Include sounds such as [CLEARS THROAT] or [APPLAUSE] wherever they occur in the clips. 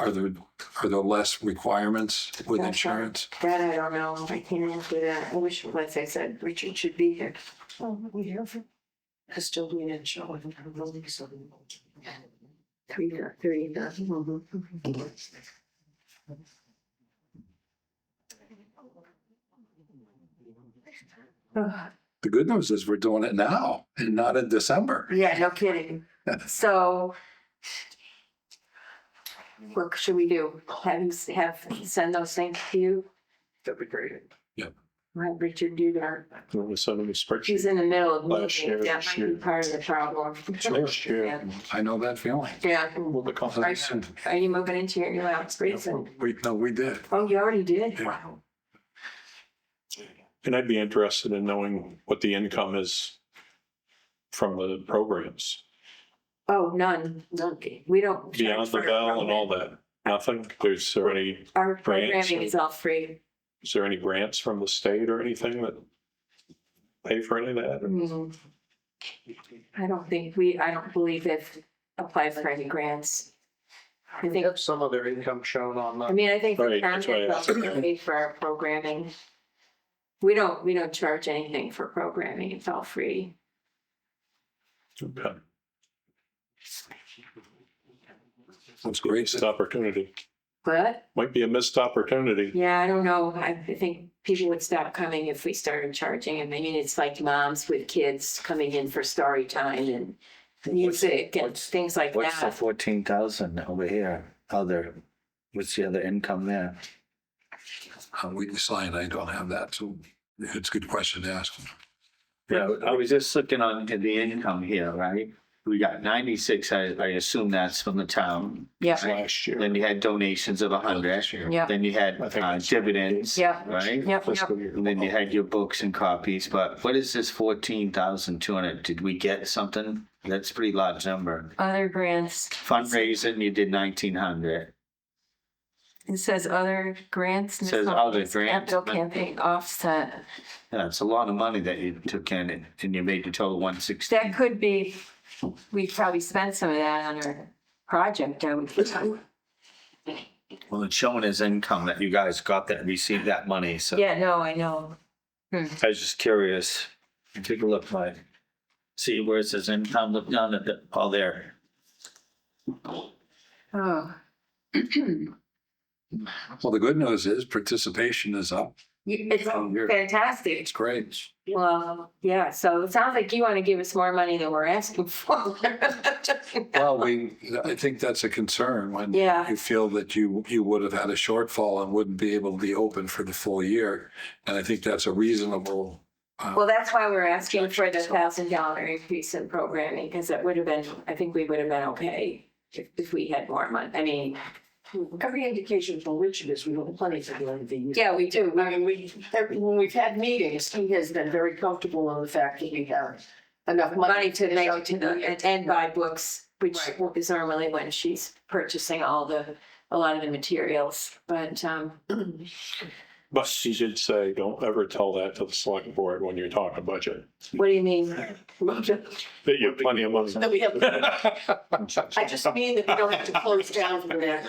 Are there, are there less requirements with That's right. insurance? That I don't know. I can't answer that. I wish, like I said, Richard should be here. Oh, we have a custodian and show and a release of. Three, thirty, nothing. Uh, The good news is we're doing it now and not in December. Yeah, no kidding. So. What should we do? Have, him s- have, send those things to you? That'd be great. Let Richard do that. Let me send them a spreadsheet. She's in the middle of Last year, meetings. That this might be year. part of the [LAUGHS] problem. Last [LAUGHS] year, I know that feeling. Yeah. with the Right. conference. Are you moving into your new house pretty soon? We, no, we did. Oh, you already did? Yeah. Wow. And I'd be interested in knowing what the income is from the programs, Oh, none. None. We don't. beyond the bell and all that. Nothing? There's there any, Our grants. programming is all free. is there any grants from the state or anything that pay for any of that? Mm. I don't think we, I don't believe they've applied for any grants. I They think, have some of their income shown on I the, mean, I think the Right, that's why I county asked. paid for our programming. We don't, we don't charge anything for programming. It's all free. Okay. It's great. Missed opportunity. But, Might be a missed opportunity. yeah, I don't know. I I think people would stop coming if we started charging. I mean, it's like moms with kids coming in for story time and music and what's- things like What's the that. fourteen thousand over here? Other, what's the other income there? Uh, We decide I don't have that, so it's a good question to ask. Yeah, I was just looking on to the income here, right? We got ninety-six, I, I assume that's from the town. Yeah, Last year, Then you had donations of a hundred. Yeah. Then you had I think uh, it's- dividends, yeah, right? yeah, yeah. fiscal year. And then you had your books and copies, but what is this fourteen thousand two hundred? Did we get something? That's a pretty large number. Other grants, Fundraising, you did nineteen hundred. it says other grants. and it's Says not- other it's grants, Capital but- campaign offset. Yeah, it's a lot of money that you took in and- and you made the total one sixty. That could be, we probably spent some of that on our project, I would think. Well, it's showing as income that you guys got that, received that money, so. Yeah, no, I know. I was just curious. Take a look, like, see where it says income, look down at the, all there. Oh, Well, the good news is participation is up. it's Oh, you're- fantastic. It's great. Well, yeah, so it sounds like you want to give us more money than we're asking [LAUGHS] for. Well, we, I think that's a concern when Yeah. you feel that you, you would have had a shortfall and wouldn't be able to be open for the full year. And I think that's a reasonable, Well, that's why we're asking for the thousand dollar increase in programming, because it would have been, I think we would have been okay if, if we had more money. I mean, every indication from Richard is we have plenty to do anything. yeah, we do. I mean, we, every- when we've had meetings, he has been very comfortable on the fact that we have enough Money money. to finish make, out to the the- year. and, and buy books, which Right. is normally when she's purchasing all the, a lot of the materials, but, um, [CLEARS THROAT] But she did say, don't ever tell that to the select board when you're talking budget, what do you mean? that you have plenty of money. [LAUGHS] That we have, I just mean that we don't have to close down for that.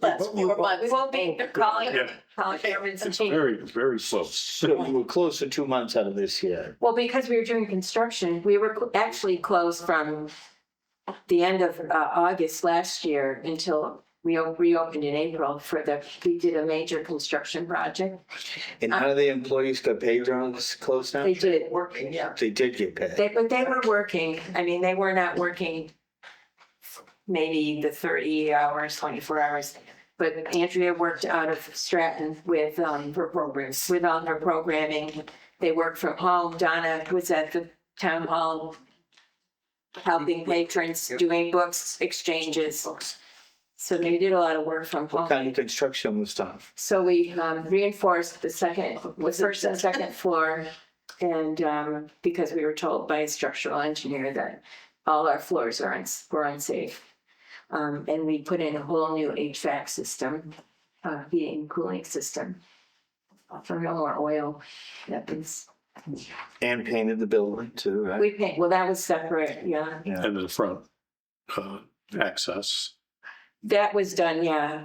That's four months. We won't be calling, Yeah. calling governments It's and changing. very, very close. So we were close to two months out of this year. Well, because we were doing construction, we were cl- actually closed from the end of uh, August last year until we o- reopened in April for the, we did a major construction project. And how do the employees get paid during this close down? Uh, They did, Working, yeah. They did get paid. they, but they were working, I mean, they were not working maybe the thirty hours, twenty-four hours. But Andrea worked out of Stratton with, um, For programs. with all her programming. They worked from home. Donna was at the town hall helping patrons, doing books exchanges. So they did a lot of work from What kind home. of construction was done? So we um, reinforced the second, the first and second floor. And um, because we were told by a structural engineer that all our floors are uns- were unsafe. Um, And we put in a whole new HVAC system, uh, heating and cooling system. For no more oil, that is, And painted the building too, right? we paid, well, that was separate, yeah. And the front, uh, access. That was done, yeah,